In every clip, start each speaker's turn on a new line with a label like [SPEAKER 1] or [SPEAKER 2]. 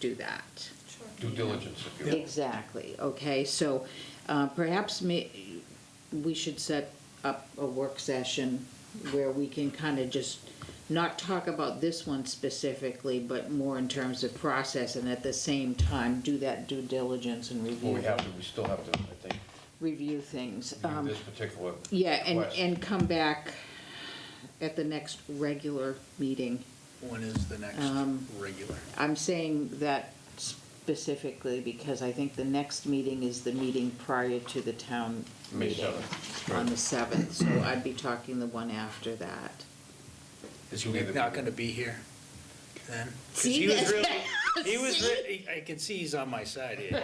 [SPEAKER 1] do that.
[SPEAKER 2] Sure.
[SPEAKER 3] Due diligence, if you will.
[SPEAKER 1] Exactly, okay, so uh, perhaps ma- we should set up a work session where we can kind of just not talk about this one specifically, but more in terms of process, and at the same time, do that due diligence and
[SPEAKER 3] Well, we
[SPEAKER 1] review,
[SPEAKER 3] have to, we still have to, I think,
[SPEAKER 1] review things.
[SPEAKER 3] do
[SPEAKER 1] Um,
[SPEAKER 3] this particular request.
[SPEAKER 1] Yeah, and, and come back at the next regular meeting.
[SPEAKER 4] When is the next
[SPEAKER 1] Um,
[SPEAKER 4] regular?
[SPEAKER 1] I'm saying that specifically because I think the next meeting is the meeting prior to the town
[SPEAKER 3] May
[SPEAKER 1] meeting.
[SPEAKER 3] 7th,
[SPEAKER 1] On
[SPEAKER 3] right.
[SPEAKER 1] the seventh, so I'd be talking the one after that.
[SPEAKER 4] Is
[SPEAKER 3] It would be
[SPEAKER 4] Nick
[SPEAKER 3] the-
[SPEAKER 4] not gonna be here then? 'Cause
[SPEAKER 1] See,
[SPEAKER 4] he was
[SPEAKER 1] that's-
[SPEAKER 4] really, he was, re- I can see he's on my side here.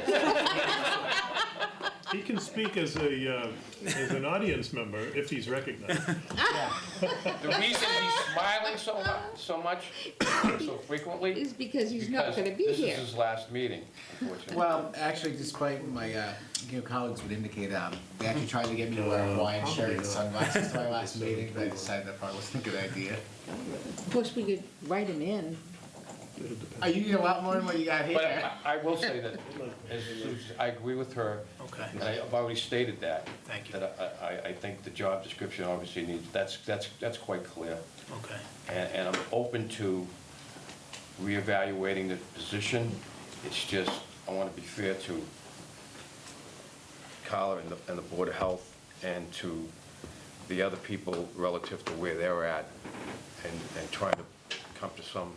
[SPEAKER 5] He can speak as a, uh, as an audience member if he's recognized.
[SPEAKER 3] The reason he's smiling so mu- so much, so frequently.
[SPEAKER 1] Is because he's not
[SPEAKER 3] because
[SPEAKER 1] gonna be
[SPEAKER 3] This
[SPEAKER 1] here.
[SPEAKER 3] is his last meeting, unfortunately.
[SPEAKER 6] Well, actually, despite my, uh, you know, colleagues would indicate, um, they actually tried to get me to wear a Hawaiian shirt and sunglasses to my last meeting, but I decided that probably wasn't a good idea.
[SPEAKER 1] Of course, we could write him in.
[SPEAKER 6] Are you eating a lot more than what you got
[SPEAKER 3] But
[SPEAKER 6] here?
[SPEAKER 3] I- I will say that, as Susan- I agree with her.
[SPEAKER 4] Okay.
[SPEAKER 3] And I've already stated that.
[SPEAKER 4] Thank you.
[SPEAKER 3] That I- I, I think the job description obviously needs, that's, that's, that's quite clear.
[SPEAKER 4] Okay.
[SPEAKER 3] And, and I'm open to reevaluating the position. It's just, I want to be fair to Carla and the, and the Board of Health and to the other people relative to where they're at and, and trying to come to some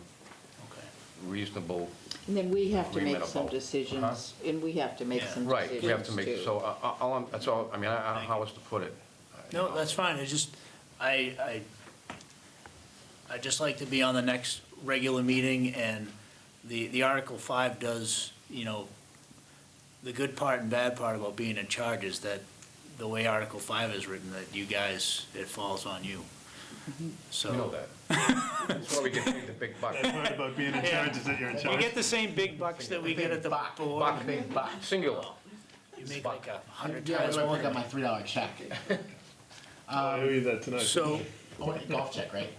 [SPEAKER 4] Okay.
[SPEAKER 3] reasonable
[SPEAKER 1] And then we have to make
[SPEAKER 3] Agreement
[SPEAKER 1] some
[SPEAKER 3] about-
[SPEAKER 1] decisions, and we have to make
[SPEAKER 4] Yeah.
[SPEAKER 1] some decisions
[SPEAKER 3] Right,
[SPEAKER 1] too.
[SPEAKER 3] we have to make, so, I- I- all, I'm- that's all, I mean, I I don't know how else to put it.
[SPEAKER 4] No, that's fine, I just, I, I, i just like to be on the next regular meeting, and the, the Article Five does, you know, the good part and bad part about being in charge is that the way Article Five is written, that you guys, it falls on you.
[SPEAKER 3] You know
[SPEAKER 4] So,
[SPEAKER 3] that. That's why we get paid the big bucks.
[SPEAKER 5] That part about being in charge is that you're in
[SPEAKER 4] you
[SPEAKER 5] charge.
[SPEAKER 4] get the same big bucks that we get at the
[SPEAKER 6] Buck,
[SPEAKER 4] board,
[SPEAKER 6] buck, big buck.
[SPEAKER 3] Singular.
[SPEAKER 4] you make like a hundred
[SPEAKER 6] Yeah, I
[SPEAKER 4] times more.
[SPEAKER 6] went got my three dollar check.
[SPEAKER 5] I owe you that tonight.
[SPEAKER 4] So,
[SPEAKER 6] I want a golf check, right?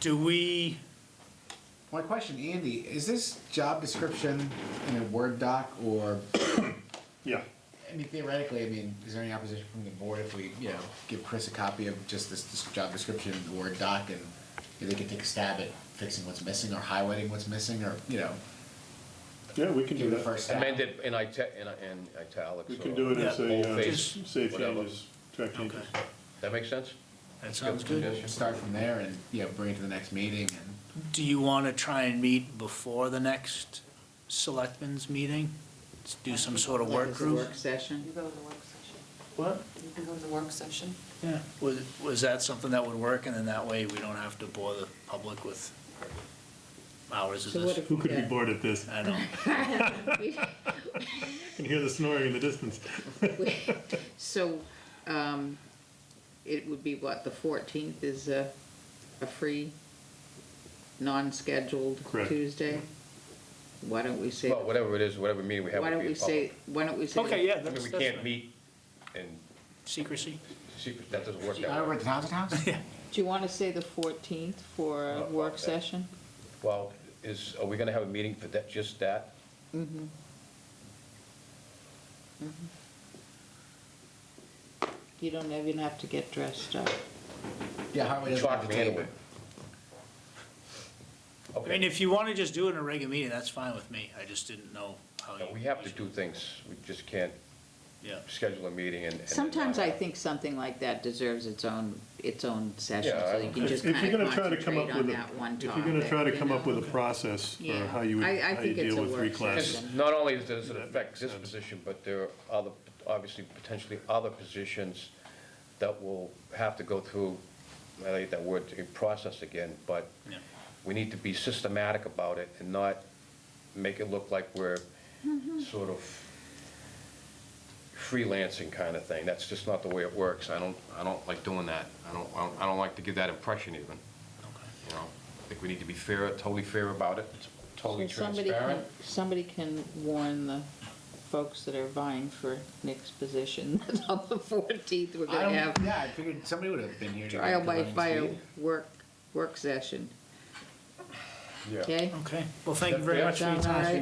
[SPEAKER 4] do we,
[SPEAKER 6] My question, Andy, is this job description in a Word doc or,
[SPEAKER 5] Yeah.
[SPEAKER 6] I mean theoretically, I mean, is there any opposition from the board if we, you know, give Chris a copy of just this, this job description in Word doc and they can take a stab at fixing what's missing or highlighting what's missing or, you know,
[SPEAKER 5] Yeah, we can do
[SPEAKER 6] give it a
[SPEAKER 5] that.
[SPEAKER 6] first stab?
[SPEAKER 3] Amended in ita- in in italics.
[SPEAKER 5] We
[SPEAKER 3] or
[SPEAKER 5] can do it as
[SPEAKER 3] bold
[SPEAKER 5] a, uh,
[SPEAKER 3] face,
[SPEAKER 5] safe
[SPEAKER 3] whatever.
[SPEAKER 5] changes, direct changes.
[SPEAKER 4] Okay.
[SPEAKER 3] That make sense?
[SPEAKER 4] that sounds good.
[SPEAKER 3] suggestion.
[SPEAKER 6] Start from there and, you know, bring it to the next meeting and,
[SPEAKER 4] Do you want to try and meet before the next selectmen's meeting? Let's Do some sort of
[SPEAKER 1] Like
[SPEAKER 4] work
[SPEAKER 1] as a
[SPEAKER 4] group?
[SPEAKER 1] Work session.
[SPEAKER 2] You go in the work session.
[SPEAKER 4] What?
[SPEAKER 2] You can go in the work session.
[SPEAKER 4] Yeah, was, was that something that would work, and then that way we don't have to bore the public with hours of
[SPEAKER 1] So what
[SPEAKER 4] this?
[SPEAKER 1] if
[SPEAKER 5] Who
[SPEAKER 1] we
[SPEAKER 5] could be
[SPEAKER 1] get-
[SPEAKER 5] bored at this?
[SPEAKER 4] I know,
[SPEAKER 5] I can hear the snoring in the distance.
[SPEAKER 1] So, um, it would be what, the fourteenth is a, a free, non-scheduled
[SPEAKER 5] Correct.
[SPEAKER 1] Tuesday? Why don't we say,
[SPEAKER 3] Well,
[SPEAKER 1] why
[SPEAKER 3] whatever it is, whatever meeting we have would
[SPEAKER 1] don't
[SPEAKER 3] be
[SPEAKER 1] we
[SPEAKER 3] in
[SPEAKER 1] say,
[SPEAKER 3] public.
[SPEAKER 1] why don't we say?
[SPEAKER 4] Okay, yeah.
[SPEAKER 3] I mean, we
[SPEAKER 4] That's- that's
[SPEAKER 3] can't
[SPEAKER 4] fine.
[SPEAKER 3] meet in
[SPEAKER 4] secrecy.
[SPEAKER 3] secret, that doesn't work
[SPEAKER 6] I
[SPEAKER 3] that
[SPEAKER 6] over
[SPEAKER 3] way.
[SPEAKER 6] at the Townsend House?
[SPEAKER 1] Do you wanna say the fourteenth for a
[SPEAKER 3] Oh,
[SPEAKER 1] work
[SPEAKER 3] okay.
[SPEAKER 1] session?
[SPEAKER 3] Well, is, are we gonna have a meeting for that, just that?
[SPEAKER 1] You don't even have to get dressed up.
[SPEAKER 6] Yeah, Hartley doesn't have
[SPEAKER 3] Chalk
[SPEAKER 6] the
[SPEAKER 3] me into
[SPEAKER 6] table.
[SPEAKER 3] it.
[SPEAKER 4] I mean,
[SPEAKER 3] Okay,
[SPEAKER 4] if you want to just do it in a regular meeting, that's fine with me, I just didn't know how you.
[SPEAKER 3] we have to do things, we just can't
[SPEAKER 4] Yeah,
[SPEAKER 3] schedule a meeting and. and-
[SPEAKER 1] Sometimes I think something like that deserves its own, its own session,
[SPEAKER 3] Yeah,
[SPEAKER 1] so
[SPEAKER 3] I-
[SPEAKER 1] you can
[SPEAKER 5] If
[SPEAKER 1] just
[SPEAKER 5] if you're
[SPEAKER 1] kinda
[SPEAKER 5] gonna try to come
[SPEAKER 1] concentrate
[SPEAKER 5] up with
[SPEAKER 1] on
[SPEAKER 5] a,
[SPEAKER 1] that one
[SPEAKER 5] if
[SPEAKER 1] topic.
[SPEAKER 5] you're gonna try to
[SPEAKER 1] you
[SPEAKER 5] come up with
[SPEAKER 1] know?
[SPEAKER 5] a process for
[SPEAKER 1] Yeah.
[SPEAKER 5] how you would,
[SPEAKER 1] I- I
[SPEAKER 5] how you
[SPEAKER 1] think it's a
[SPEAKER 5] deal with
[SPEAKER 1] work
[SPEAKER 5] three
[SPEAKER 1] session.
[SPEAKER 5] classes.
[SPEAKER 3] Because not only does it affect this position, but there are other, obviously, potentially other positions that will have to go through, I hate that word, a process again, but
[SPEAKER 4] Yeah.
[SPEAKER 3] we need to be systematic about it and not make it look like we're sort of freelancing kind of thing. That's just not the way it works. I don't, I don't like doing that. I don't, I don't- I don't like to give that impression even,
[SPEAKER 4] okay.
[SPEAKER 3] you know? I think we need to be fair, totally fair about it, totally
[SPEAKER 1] So somebody can-
[SPEAKER 3] transparent.
[SPEAKER 1] Somebody can warn the folks that are vying for Nick's position that on the fourteenth, we're
[SPEAKER 6] I
[SPEAKER 1] gonna
[SPEAKER 6] don't,
[SPEAKER 1] have
[SPEAKER 6] yeah, I figured somebody would have been here. to
[SPEAKER 1] trial
[SPEAKER 6] come
[SPEAKER 1] by
[SPEAKER 6] up and
[SPEAKER 1] fire
[SPEAKER 6] speak.
[SPEAKER 1] work, work session,
[SPEAKER 3] Yeah.
[SPEAKER 1] okay?
[SPEAKER 4] Okay, well, thank you very
[SPEAKER 3] Yeah.
[SPEAKER 4] much for your
[SPEAKER 1] Sound all
[SPEAKER 4] time.
[SPEAKER 1] right?